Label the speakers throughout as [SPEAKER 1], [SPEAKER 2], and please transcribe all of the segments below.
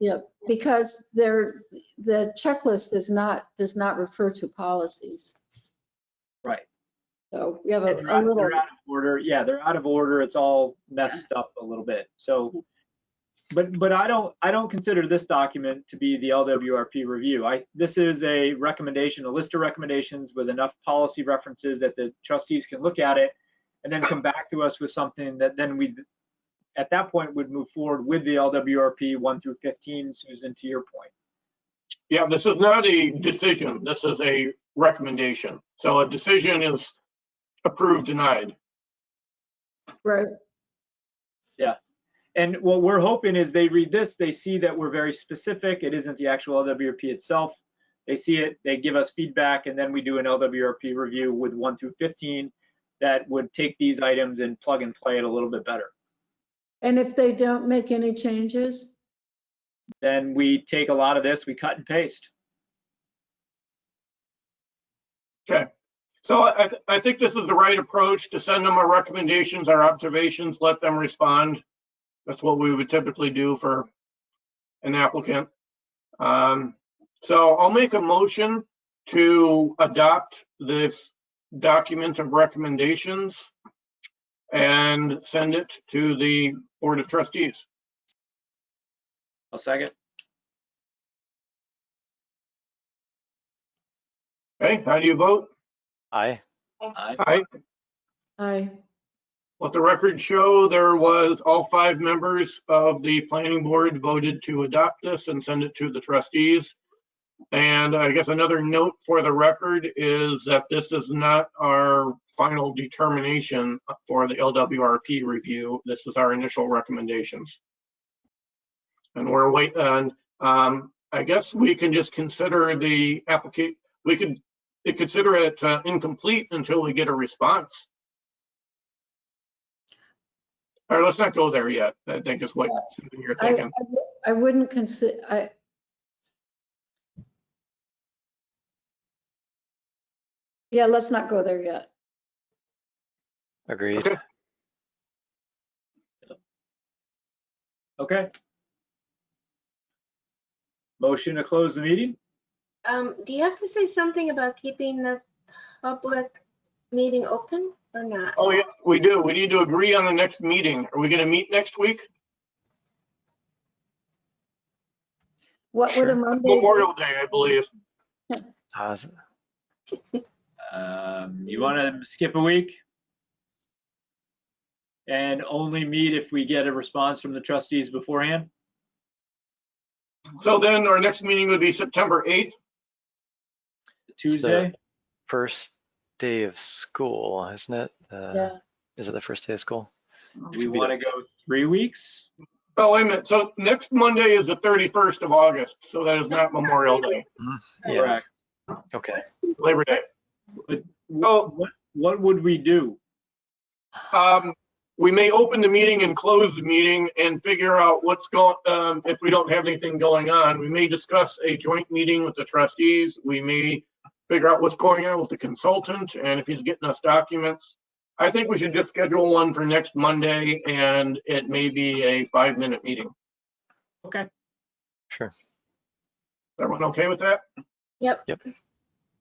[SPEAKER 1] Yeah, because there, the checklist is not, does not refer to policies.
[SPEAKER 2] Right.
[SPEAKER 1] So we have
[SPEAKER 2] And
[SPEAKER 1] a
[SPEAKER 2] They're
[SPEAKER 1] a
[SPEAKER 2] out
[SPEAKER 1] little,
[SPEAKER 2] they're out of order, yeah, they're out of order, it's all messed up a little bit, so. But, but I don't, I don't consider this document to be the LWRP review. I, this is a recommendation, a list of recommendations with enough policy references that the trustees can look at it and then come back to us with something that then we, at that point, would move forward with the LWRP one through 15, Susan, to your point.
[SPEAKER 3] Yeah, this is not a decision. This is a recommendation. So a decision is approved, denied.
[SPEAKER 1] right,
[SPEAKER 2] And what we're hoping is they read this, they see that we're very specific. It isn't the actual LWRP itself. They see it, they give us feedback, and then we do an LWRP review with one through 15 that would take these items and plug and play it a little bit better.
[SPEAKER 1] and if they don't make any changes,
[SPEAKER 2] Then we take a lot of this, we cut and paste.
[SPEAKER 3] So I, th- I think this is the right approach to send them our recommendations, our observations, let them respond. That's what we would typically do for an applicant. Um, so I'll make a motion to adopt this document of recommendations and send it to the Board of Trustees.
[SPEAKER 2] I'll second.
[SPEAKER 3] Okay, how do you vote?
[SPEAKER 4] Aye.
[SPEAKER 2] Aye.
[SPEAKER 3] Aye.
[SPEAKER 1] I,
[SPEAKER 3] Let the record show there was all five members of the planning board voted to adopt this and send it to the trustees. And I guess another note for the record is that this is not our final determination for the LWRP review. This is our initial recommendations. And we're wait, and um, I guess we can just consider the applicant, we could consider it uh, incomplete until we get a response. All right, let's not go there yet. I think is what Susan, you're
[SPEAKER 1] I,
[SPEAKER 3] thinking.
[SPEAKER 1] I wou- I wouldn't consider, I. Yeah, let's not go there yet.
[SPEAKER 4] Agreed.
[SPEAKER 3] Okay.
[SPEAKER 2] Okay. Motion to close the meeting?
[SPEAKER 5] Um, do you have to say something about keeping the public meeting open or not?
[SPEAKER 3] Oh, yes, we do. We need to agree on the next meeting. Are we going to meet next week?
[SPEAKER 1] What would a
[SPEAKER 4] Sure.
[SPEAKER 1] Monday?
[SPEAKER 3] Memorial Day, I believe.
[SPEAKER 4] Uh, s-
[SPEAKER 2] Um, you want to skip a week? And only meet if we get a response from the trustees beforehand?
[SPEAKER 3] So then our next meeting would be September 8th.
[SPEAKER 2] Tuesday?
[SPEAKER 4] First day of school, isn't it? Uh,
[SPEAKER 1] Yeah,
[SPEAKER 4] Is it the first day of school?
[SPEAKER 2] We want to go three weeks?
[SPEAKER 3] Oh, wait a minute. So next Monday is the 31st of August. So that is not Memorial Day,
[SPEAKER 4] Yeah, okay.
[SPEAKER 3] Labor Day.
[SPEAKER 2] Well, what, what would we do?
[SPEAKER 3] Um, We may open the meeting and close the meeting and figure out what's going, um, if we don't have anything going on. We may discuss a joint meeting with the trustees. We may figure out what's going on with the consultant and if he's getting us documents. I think we should just schedule one for next Monday and it may be a five-minute meeting.
[SPEAKER 2] Okay.
[SPEAKER 4] Sure.
[SPEAKER 3] Everyone okay with that?
[SPEAKER 5] Yep.
[SPEAKER 4] Yep.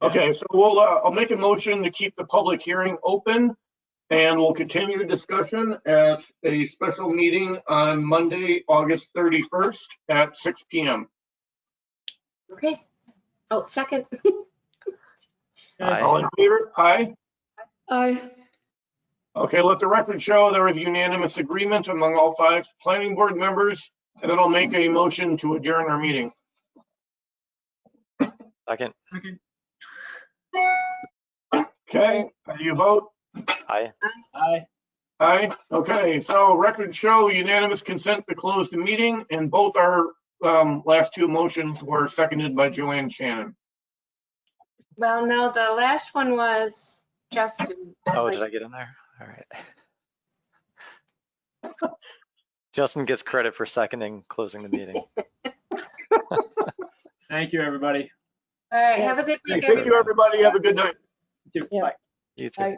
[SPEAKER 3] Okay, so we'll, uh, I'll make a motion to keep the public hearing open and we'll continue discussion at a special meeting on Monday, August 31st at 6 PM.
[SPEAKER 5] Okay. Oh, second.
[SPEAKER 4] Aye.
[SPEAKER 3] All in favor? Aye.
[SPEAKER 1] I,
[SPEAKER 3] Okay, let the record show there is unanimous agreement among all five planning board members. And then I'll make a motion to adjourn our meeting.
[SPEAKER 4] Second.
[SPEAKER 3] Okay, how do you vote?
[SPEAKER 4] Aye.
[SPEAKER 2] Aye.
[SPEAKER 3] Aye. Okay, so record show unanimous consent to close the meeting and both our um, last two motions were seconded by Joanne Shannon.
[SPEAKER 5] Well, no, the last one was Justin.
[SPEAKER 4] Oh, did I get in there? All right. Justin gets credit for seconding closing the meeting.
[SPEAKER 2] Thank you, everybody.
[SPEAKER 5] All right, have a good week,
[SPEAKER 3] Thank you, everybody. Have a good night.
[SPEAKER 2] You too.
[SPEAKER 1] Yeah.
[SPEAKER 2] Bye.
[SPEAKER 4] You too.
[SPEAKER 1] Aye.